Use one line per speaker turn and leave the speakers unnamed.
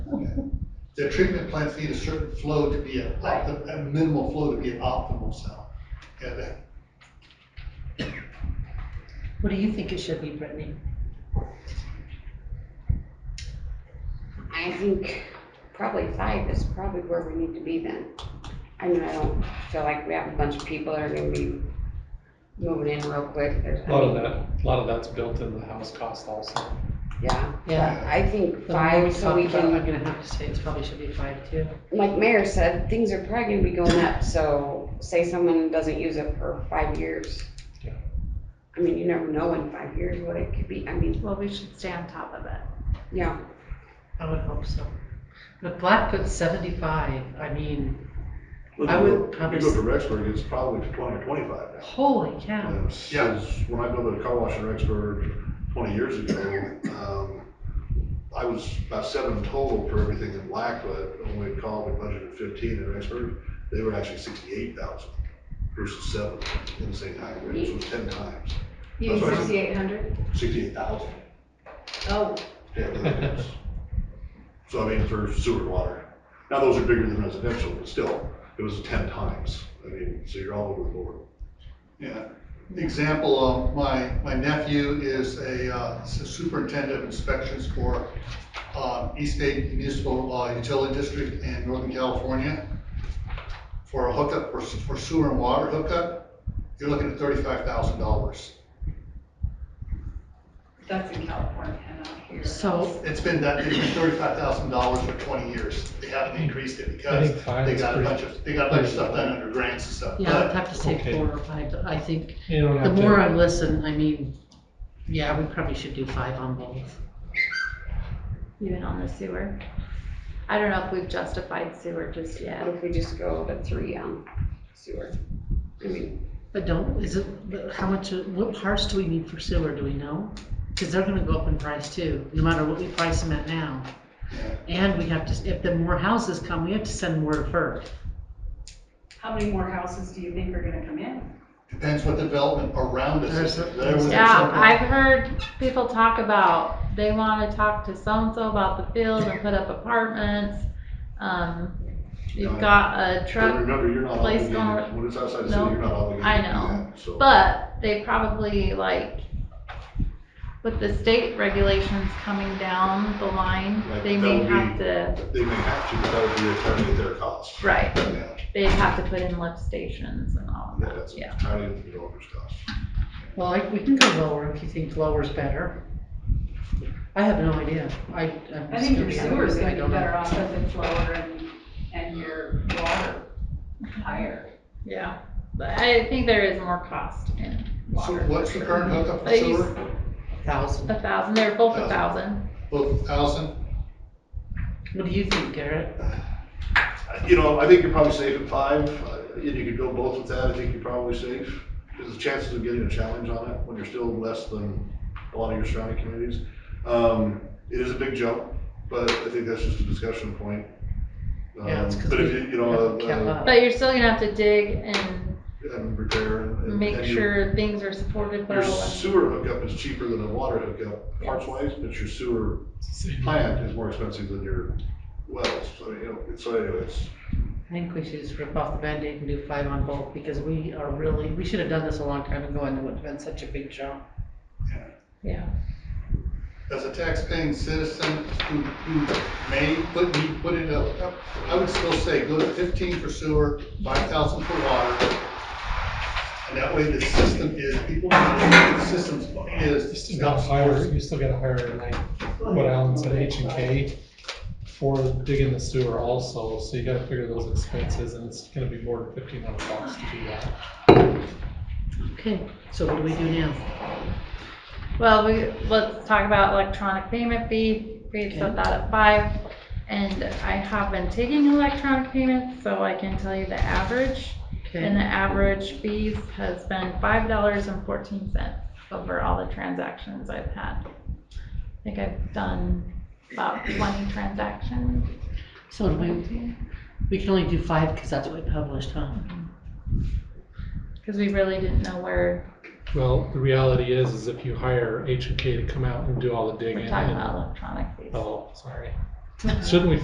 the treatment plants need a certain flow to be a, opti- a minimal flow to be an optimal cell. uh, Yeah, that-
What do you think it should be, Brittany?
I think probably five is probably where we need to be then. I mean, I don't feel like we have a bunch of people that are gonna be moving in real quick. There's,
A lot of that, a lot of that's built in the house cost also.
yeah.
Yeah.
I think
The more we
five, so
talk
we
about, it, I'm
can,
gonna have to say it's probably should be five too.
like Mayor said, things are probably gonna be going up, so say someone doesn't use it for five years.
Yeah.
I mean, you never know in five years what it could be. I mean,
Well, we should stay on top of it.
yeah,
I would hope so. But Blackfoot's seventy-five, I mean,
Look,
I
you
would
go-
probably
You go
s-
to Rexburg, it's probably twenty or twenty-five now.
holy cow.
And s-
Yeah.
is- When I go to the car wash in Rexburg twenty years ago, um, I was about seven total for everything in Blackfoot. When we called, we budgeted fifteen in Rexburg, they were actually sixty-eight thousand versus seven in the same time, range, so it was ten times,
You need
That's right.
sixty-eight hundred?
sixty-eight thousand.
Oh,
Yeah, really is. So I mean, for sewer and water. Now, those are bigger than residential, but still, it was ten times. I mean, so you're all over the board.
Yeah, example, um, my, my nephew is a uh, s- superintendent of inspections for um, East State Municipal uh, Utility District in Northern California for a hookup, for s- for sewer and water hookup, you're looking at thirty-five thousand dollars.
That's in California, not here.
So,
It's been that, it's been thirty-five thousand dollars for twenty years, they haven't increased it because
think five
they
is
got a
pretty-
bunch of, they got a bunch of stuff done under grants and stuff,
yeah, I'd
but
have to say
Okay.
four or five, I think,
You don't
the
have
more
to,
I listen, I mean, yeah, we probably should do five on both.
even on the sewer. I don't know if we've justified sewer just
what
yet.
if we just go to three on sewer? I mean,
But don't, is it, but how much, what parts do we need for sewer, do we know? Cause they're gonna go up in price too, no matter what we price them at now. And we have to, if the more houses come, we have to send more to FERC.
How many more houses do you think are gonna come in?
depends what development around us is.
There's a-
There was
Yeah,
something-
I've heard people talk about, they wanna talk to so-and-so about the field and put up apartments. Um, you've got a
But
truck,
remember, you're not
place
obligated,
going-
when it's outside the
No,
city, you're not obligated
I
to do
know,
that, so.
but they probably like, with the state regulations coming down the line,
Like,
they may
that'll be-
have to,
They may have to, but that would be entirely at their cost.
right,
Yeah,
they'd have to put in lift stations and all of
yeah,
that,
that's
yeah.
entirely at the developer's cost.
Well, I, we can go lower if you think lower's better. I have no idea. I, I'm.
I think your
just-
sewer's
I
gonna
don't
be better
know.
off if it's lower and, and your water higher.
Yeah, but I think there is more cost in
So
water.
what's the current hookup for
They use
sewer?
Thousand.
a thousand, they're both a
Thousand.
thousand.
Both thousand?
What do you think, Garrett?
You know, I think you're probably safe at five, uh, and you could go both with that, I think you're probably safe. Because the chances of getting a challenge on it when you're still less than a lot of your surrounding communities. Um, it is a big jump, but I think that's just a discussion point.
Yeah, it's
Um,
'cause
But if
we
you, you know,
haven't kept
uh,
up.
But you're still gonna have to dig and
uh, and repair and. and-
make
and you-
sure things are supported
Your
well.
sewer hookup is cheaper than a water hookup parts wise, but your sewer plant is more expensive than your wells. So, you know, so anyways,
I think we should just rip off the Band-Aid and do five on both because we are really, we should have done this a long time ago and it would have been such a big jump.
Yeah,
As a taxpaying citizen who, who may put, me put in a hookup, I would still say go to fifteen for sewer, five thousand for water. And that way the system is, people, the system's,
you
is.
still gotta hire, you still gotta hire like what Alan said, H and K for digging the sewer also, so you gotta figure those expenses and it's gonna be more than fifteen hundred bucks to do that.
Okay, so what do we do now?
well, we, let's talk about electronic payment fee, we had set that at five. And I have been taking electronic payments, so I can tell you the average. And the
Okay,
average fees has been five dollars and fourteen cents over all the transactions I've had. I think I've done about twenty transactions.
so do we, we can only do five because that's what we published, huh?
Cause we really didn't know where
Well, the reality is, is if you hire H and K to come out and do all the digging
we're talking
and,
about electronic fees.
oh, sorry. Shouldn't we